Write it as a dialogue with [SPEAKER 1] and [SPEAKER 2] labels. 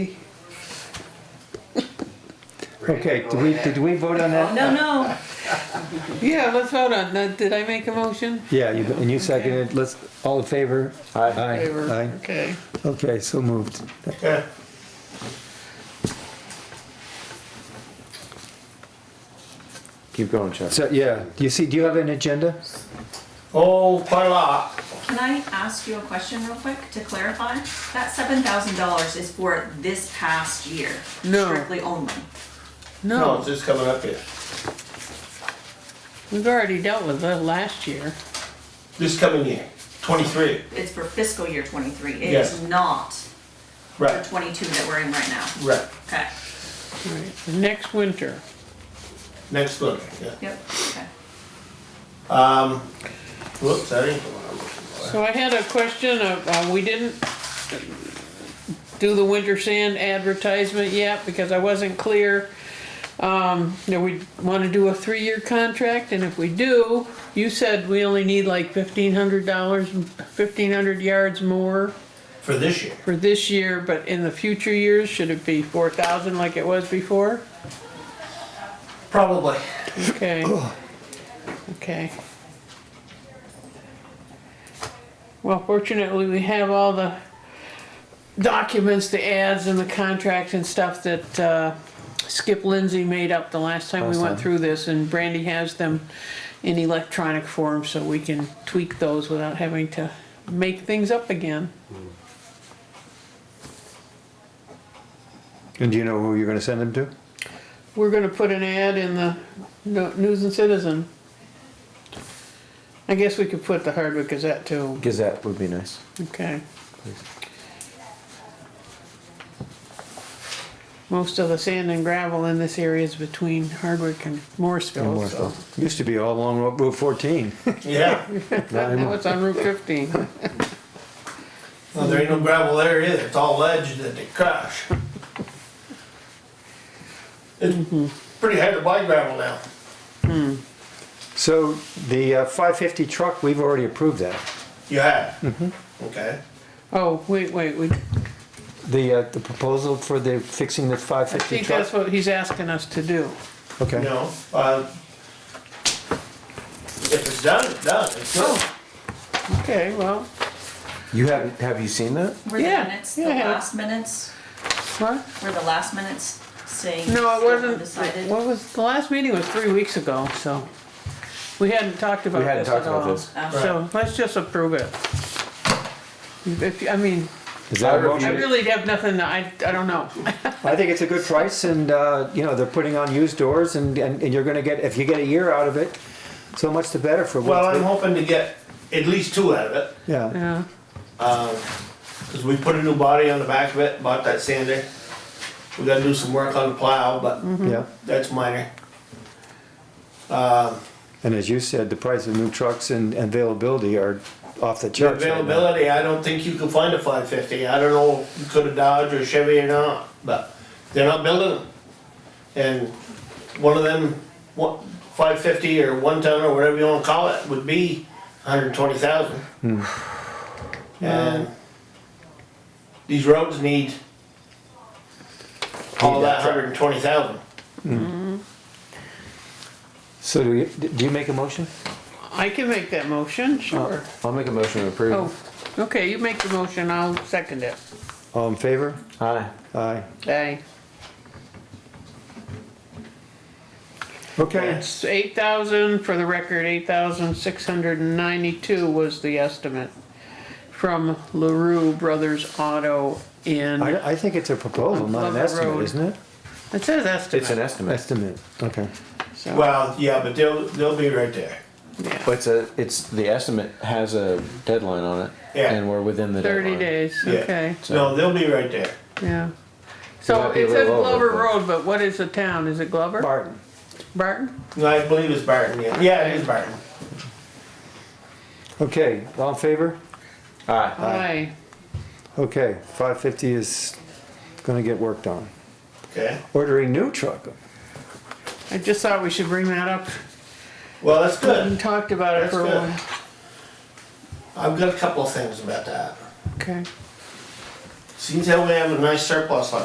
[SPEAKER 1] Okay, did we, did we vote on that?
[SPEAKER 2] No, no,
[SPEAKER 3] Yeah, let's vote on, that. did I make a motion?
[SPEAKER 1] Yeah, you- and you seconded, let's, all in favor? Aye.
[SPEAKER 3] Favor.
[SPEAKER 1] Aye.
[SPEAKER 3] Okay.
[SPEAKER 1] Okay, so moved.
[SPEAKER 4] Yeah.
[SPEAKER 5] Keep going, Chuck.
[SPEAKER 1] So, yeah, you see, do you have an agenda?
[SPEAKER 4] Oh, quite a lot.
[SPEAKER 2] can I ask you a question real quick to clarify? That seven thousand dollars is for this past year,
[SPEAKER 3] No.
[SPEAKER 2] strictly only.
[SPEAKER 4] No,
[SPEAKER 3] No,
[SPEAKER 4] it's just coming up here.
[SPEAKER 3] we've already dealt with that last year.
[SPEAKER 4] This coming year, twenty-three,
[SPEAKER 2] It's for fiscal year twenty-three. It
[SPEAKER 4] Yes.
[SPEAKER 2] is not for
[SPEAKER 4] right,
[SPEAKER 2] twenty-two that we're in right now.
[SPEAKER 4] right,
[SPEAKER 2] Okay,
[SPEAKER 3] Right. Next winter.
[SPEAKER 4] next one, yeah.
[SPEAKER 2] yep, okay.
[SPEAKER 4] Um, whoops, that ain't the one I'm looking for.
[SPEAKER 3] So I had a question of, uh, we didn't do the winter sand advertisement yet because I wasn't clear. Um, that we wanna do a three-year contract and if we do, you said we only need like fifteen hundred dollars, fifteen hundred yards more
[SPEAKER 4] For this year,
[SPEAKER 3] for this year, but in the future years, should it be four thousand like it was before?
[SPEAKER 4] probably.
[SPEAKER 3] Okay. Okay. Well, fortunately, we have all the documents, the ads and the contracts and stuff that uh, Skip Lindsey made up the last time we
[SPEAKER 1] Last
[SPEAKER 3] went
[SPEAKER 1] time.
[SPEAKER 3] through this, and Brandy has them in electronic form, so we can tweak those without having to make things up again.
[SPEAKER 1] And do you know who you're gonna send them to?
[SPEAKER 3] We're gonna put an ad in the No- News and Citizen. I guess we could put the Hardwick Gazette too,
[SPEAKER 5] Gazette would be nice.
[SPEAKER 3] Okay. Most of the sand and gravel in this area is between Hardwick and Morrisville, so.
[SPEAKER 1] Used to be all along Route 14.
[SPEAKER 4] Yeah,
[SPEAKER 3] Now it's on Route fifteen.
[SPEAKER 4] well, there ain't no gravel there either, it's all ledge that they crush. It's pretty hard to buy gravel now.
[SPEAKER 1] So the uh, 550 truck, we've already approved that.
[SPEAKER 4] You have? Mm-hmm. Okay,
[SPEAKER 3] Oh, wait, wait, we,
[SPEAKER 1] The, uh, the proposal for the fixing the
[SPEAKER 3] I
[SPEAKER 1] 550
[SPEAKER 3] think that's
[SPEAKER 1] truck?
[SPEAKER 3] what he's asking us to do.
[SPEAKER 1] Okay,
[SPEAKER 4] no, uh, if it's done, it's done, it's done.
[SPEAKER 2] Oh.
[SPEAKER 3] Okay, well,
[SPEAKER 5] You have have you seen that?
[SPEAKER 2] Were the
[SPEAKER 3] Yeah,
[SPEAKER 2] minutes, the
[SPEAKER 3] yeah.
[SPEAKER 2] last minutes,
[SPEAKER 3] what?
[SPEAKER 2] were the last minutes saying?
[SPEAKER 3] No,
[SPEAKER 2] still
[SPEAKER 3] it wasn't,
[SPEAKER 2] undecided?
[SPEAKER 3] what was, the last meeting was three weeks ago, so. We hadn't talked about
[SPEAKER 5] We hadn't
[SPEAKER 3] this at
[SPEAKER 5] talked about
[SPEAKER 3] all.
[SPEAKER 5] this.
[SPEAKER 2] Oh.
[SPEAKER 3] So let's just approve it. If, I mean,
[SPEAKER 1] is that a
[SPEAKER 5] I
[SPEAKER 3] I
[SPEAKER 1] motion?
[SPEAKER 3] really have nothing, I, I don't know.
[SPEAKER 1] I think it's a good price and, uh, you know, they're putting on used doors and, and and you're gonna get, if you get a year out of it, so much the better for
[SPEAKER 4] Well, I'm
[SPEAKER 1] what,
[SPEAKER 4] hoping to get at least two out of it.
[SPEAKER 1] yeah.
[SPEAKER 3] Yeah.
[SPEAKER 4] Cause we put a new body on the back of it, bought that sander. We gotta do some work on the plow, but
[SPEAKER 1] Yeah,
[SPEAKER 4] that's minor.
[SPEAKER 1] and as you said, the price of new trucks and and availability are off the
[SPEAKER 4] The
[SPEAKER 1] charts. right now.
[SPEAKER 4] availability, I don't think you can find a five fifty, I don't know, if you could have Dodge or Chevy or not, but they're not building them. And one of them, what, five fifty or one ton or whatever you wanna call it, would be hundred and twenty thousand.
[SPEAKER 1] Hmm.
[SPEAKER 4] And these roads need all
[SPEAKER 1] Need that truck.
[SPEAKER 4] that hundred and twenty thousand.
[SPEAKER 1] So do you, do you make a motion?
[SPEAKER 3] I can make that motion, sure.
[SPEAKER 5] I'll make a motion to approve.
[SPEAKER 3] Oh, okay, you make the motion, I'll second it.
[SPEAKER 1] All in favor?
[SPEAKER 5] Aye.
[SPEAKER 1] Aye.
[SPEAKER 3] Aye.
[SPEAKER 1] Okay.
[SPEAKER 3] It's eight thousand, for the record, eight thousand six hundred and ninety-two was the estimate from LaRue Brothers Auto in,
[SPEAKER 1] I, I think it's a proposal, not an
[SPEAKER 3] Glover
[SPEAKER 1] estimate,
[SPEAKER 3] Road.
[SPEAKER 1] isn't it?
[SPEAKER 3] it says
[SPEAKER 5] It's an
[SPEAKER 3] estimate,
[SPEAKER 1] Estimate,
[SPEAKER 5] estimate.
[SPEAKER 1] okay.
[SPEAKER 3] so.
[SPEAKER 4] Well, yeah, but they'll, they'll be right there.
[SPEAKER 3] yeah.
[SPEAKER 5] But it's a it's the estimate has a deadline on it.
[SPEAKER 4] Yeah.
[SPEAKER 5] And we're within the
[SPEAKER 3] Thirty
[SPEAKER 5] deadline.
[SPEAKER 3] days,
[SPEAKER 4] Yeah.
[SPEAKER 3] okay,
[SPEAKER 4] No, they'll be right there.
[SPEAKER 3] yeah. So
[SPEAKER 5] might be a
[SPEAKER 3] it says
[SPEAKER 5] little over,
[SPEAKER 3] Glover
[SPEAKER 5] but-
[SPEAKER 3] Road, but what is the town, is it Glover?
[SPEAKER 1] Barton.
[SPEAKER 3] Barton?
[SPEAKER 4] No, I believe it's Barton, yeah. Yeah, it is Barton.
[SPEAKER 1] Okay, all in favor?
[SPEAKER 5] Aye.
[SPEAKER 3] Aye.
[SPEAKER 1] Okay, five fifty is gonna get worked on.
[SPEAKER 4] Okay.
[SPEAKER 1] Ordering new truck.
[SPEAKER 3] I just thought we should bring that up,
[SPEAKER 4] Well, that's
[SPEAKER 3] we
[SPEAKER 4] good.
[SPEAKER 3] talked about it
[SPEAKER 4] That's
[SPEAKER 3] for a
[SPEAKER 4] good.
[SPEAKER 3] while,
[SPEAKER 4] I've got a couple of things about that.
[SPEAKER 3] okay.
[SPEAKER 4] Seems that we have a nice surplus on